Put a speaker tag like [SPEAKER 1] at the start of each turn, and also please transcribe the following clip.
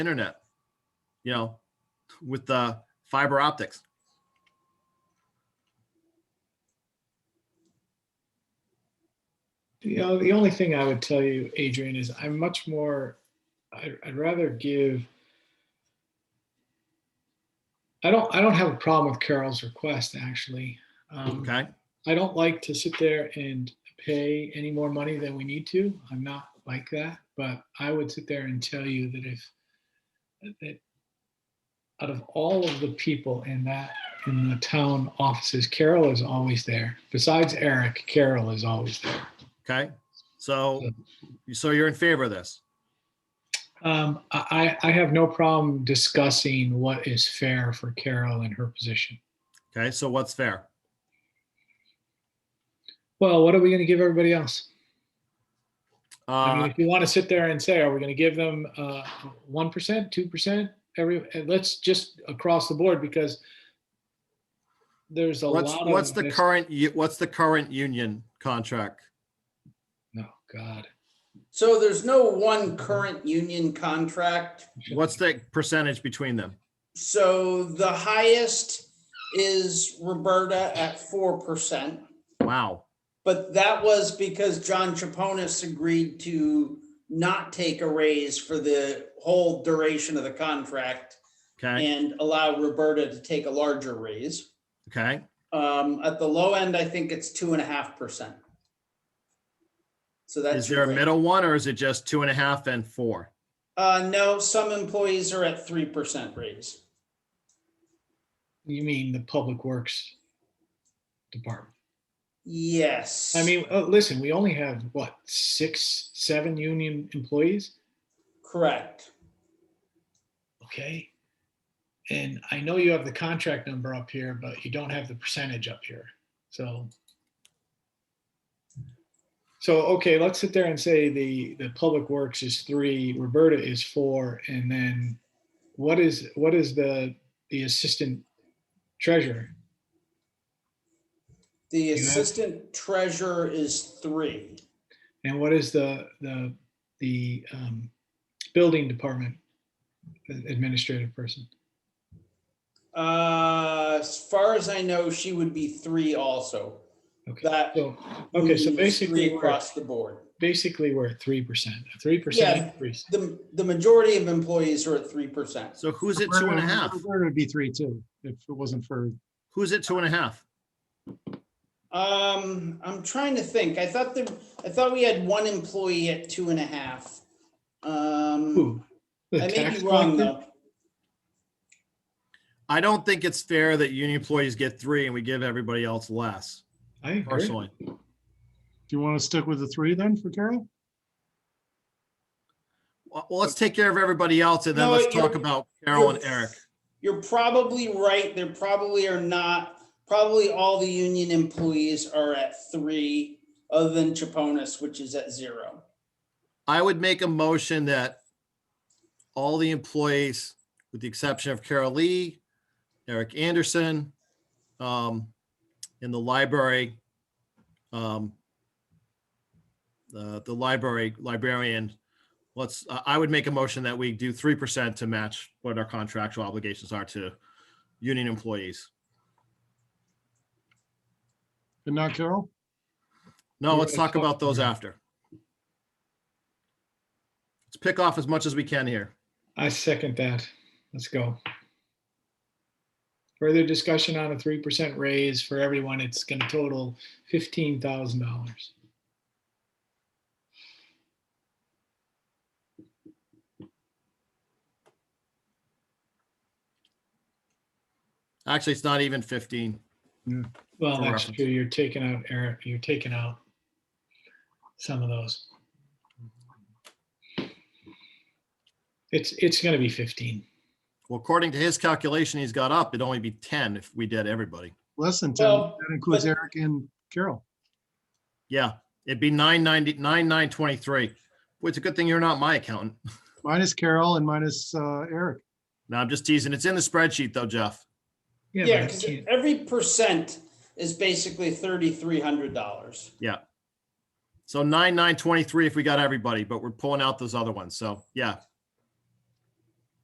[SPEAKER 1] internet, you know, with the fiber optics.
[SPEAKER 2] You know, the only thing I would tell you, Adrian, is I'm much more, I- I'd rather give. I don't, I don't have a problem with Carol's request, actually. Um,
[SPEAKER 1] Okay.
[SPEAKER 2] I don't like to sit there and pay any more money than we need to. I'm not like that, but I would sit there and tell you that if, that out of all of the people in that, in the town offices, Carol is always there. Besides Eric, Carol is always there.
[SPEAKER 1] Okay. So, so you're in favor of this?
[SPEAKER 2] Um, I, I I have no problem discussing what is fair for Carol in her position.
[SPEAKER 1] Okay. So what's fair?
[SPEAKER 2] Well, what are we going to give everybody else? I mean,
[SPEAKER 1] Uh,
[SPEAKER 2] if you want to sit there and say, are we going to give them uh, one percent, two percent, every? and Let's just across the board because there's a
[SPEAKER 1] what's,
[SPEAKER 2] lot.
[SPEAKER 1] what's
[SPEAKER 2] of
[SPEAKER 1] the
[SPEAKER 2] this-
[SPEAKER 1] current, u- what's the current union contract?
[SPEAKER 2] No, God.
[SPEAKER 3] So there's no one current union contract.
[SPEAKER 1] What's the percentage between them?
[SPEAKER 3] So the highest is Roberta at four percent.
[SPEAKER 1] Wow.
[SPEAKER 3] But that was because John Chaponis agreed to not take a raise for the whole duration of the contract
[SPEAKER 1] Okay.
[SPEAKER 3] and allow Roberta to take a larger raise.
[SPEAKER 1] Okay.
[SPEAKER 3] Um, at the low end, I think it's two and a half percent. So that's.
[SPEAKER 1] Is there a
[SPEAKER 3] your-
[SPEAKER 1] middle one or is it just two and a half and four?
[SPEAKER 3] Uh, no, some employees are at three percent raise.
[SPEAKER 2] You mean the Public Works Department?
[SPEAKER 3] Yes.
[SPEAKER 2] I mean, uh, listen, we only have what six, seven union employees.
[SPEAKER 3] Correct.
[SPEAKER 2] Okay. And I know you have the contract number up here, but you don't have the percentage up here. So. So, okay, let's sit there and say the, the Public Works is three, Roberta is four, and then what is, what is the, the Assistant Treasurer?
[SPEAKER 3] The
[SPEAKER 2] You have-
[SPEAKER 3] assistant treasurer is three.
[SPEAKER 2] And what is the, the, the um, Building Department Administrative Person?
[SPEAKER 3] Uh, as far as I know, she would be three also.
[SPEAKER 2] Okay,
[SPEAKER 3] That
[SPEAKER 2] so, okay, so
[SPEAKER 3] means
[SPEAKER 2] basically.
[SPEAKER 3] three
[SPEAKER 2] we're-
[SPEAKER 3] across the board.
[SPEAKER 2] basically we're at three percent, a three
[SPEAKER 3] Yeah.
[SPEAKER 2] percent increase.
[SPEAKER 3] The the majority of employees are at three percent.
[SPEAKER 1] So who's at two and
[SPEAKER 2] Um,
[SPEAKER 1] a half?
[SPEAKER 4] Roberta would be three too, if it wasn't for,
[SPEAKER 1] Who's at two and a half?
[SPEAKER 3] Um, I'm trying to think. I thought the I thought we had one employee at two and a half. Um,
[SPEAKER 2] Ooh, the
[SPEAKER 3] I may
[SPEAKER 2] tax
[SPEAKER 3] be wrong
[SPEAKER 2] collector?
[SPEAKER 3] though.
[SPEAKER 1] I don't think it's fair that union employees get three and we give everybody else less
[SPEAKER 2] I agree.
[SPEAKER 1] personally.
[SPEAKER 4] do you want to stick with the three then for Carol?
[SPEAKER 1] Well, well, let's take care of everybody else and then
[SPEAKER 3] No,
[SPEAKER 1] let's talk
[SPEAKER 3] you're-
[SPEAKER 1] about Carol and Eric.
[SPEAKER 3] You're probably right. There probably are not, probably all the union employees are at three, other than Chaponas, which is at zero.
[SPEAKER 1] I would make a motion that all the employees, with the exception of Carol Lee, Eric Anderson, um, in the library, um, the, the library, librarian, let's, I- I would make a motion that we do 3% to match what our contractual obligations are to union employees.
[SPEAKER 4] And not Carol?
[SPEAKER 1] No,
[SPEAKER 2] We're
[SPEAKER 1] let's
[SPEAKER 2] gonna
[SPEAKER 1] talk
[SPEAKER 2] talk
[SPEAKER 1] about those
[SPEAKER 2] about
[SPEAKER 1] after. Let's pick off as much as we can here.
[SPEAKER 2] I second that. Let's go. Further discussion on a three percent raise for everyone. It's gonna total fifteen thousand dollars.
[SPEAKER 1] Actually, it's not even 15.
[SPEAKER 2] Well,
[SPEAKER 1] For
[SPEAKER 2] that's
[SPEAKER 1] reference.
[SPEAKER 2] true. You're taking out, Eric, you're taking out some of those. It's, it's gonna be fifteen.
[SPEAKER 1] Well, according to his calculation, he's got up, it'd only be ten if we did everybody.
[SPEAKER 4] Less than ten,
[SPEAKER 3] Well,
[SPEAKER 4] that includes
[SPEAKER 3] but-
[SPEAKER 4] Eric and Carol.
[SPEAKER 1] Yeah, it'd be nine ninety, nine nine twenty-three. Boy, it's a good thing you're not my accountant.
[SPEAKER 4] Minus Carol and minus uh, Eric.
[SPEAKER 1] No, I'm just teasing. It's in the spreadsheet though, Jeff.
[SPEAKER 2] but
[SPEAKER 3] Yeah,
[SPEAKER 2] I
[SPEAKER 3] because
[SPEAKER 2] can't-
[SPEAKER 3] every percent is basically thirty-three hundred dollars.
[SPEAKER 1] So nine nine twenty-three if we got everybody, but we're pulling out those other ones. So yeah,